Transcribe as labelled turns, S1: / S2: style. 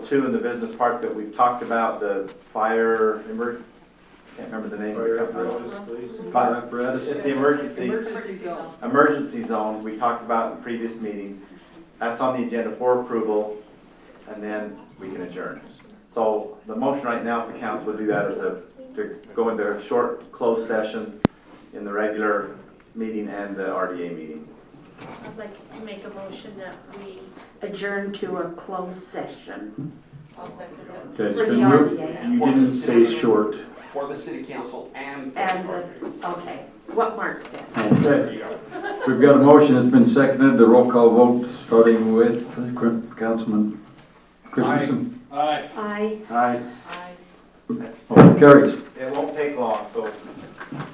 S1: two in the business park that we've talked about, the fire, emerg- can't remember the name of the company. Fire apparatus. It's the emergency,
S2: Emergency zone.
S1: emergency zone we talked about in previous meetings. That's on the agenda for approval, and then we can adjourn. So the motion right now, if the council would do that, is a- to go into a short closed session in the regular meeting and the RDA meeting.
S3: I'd like to make a motion that we,
S4: adjourn to a closed session
S2: I'll second that.
S5: Okay, it's
S4: For the
S5: been moved,
S4: RDA.
S5: you didn't say short.
S6: for the city council and. for the
S4: and,
S6: park.
S4: the- okay, what Mark said.
S5: Okay. We've got a motion that's been seconded, the roll call vote, starting with Councilman Christensen.
S4: I
S5: Aye.
S2: Aye.
S5: Motion carries.
S1: It won't take long, so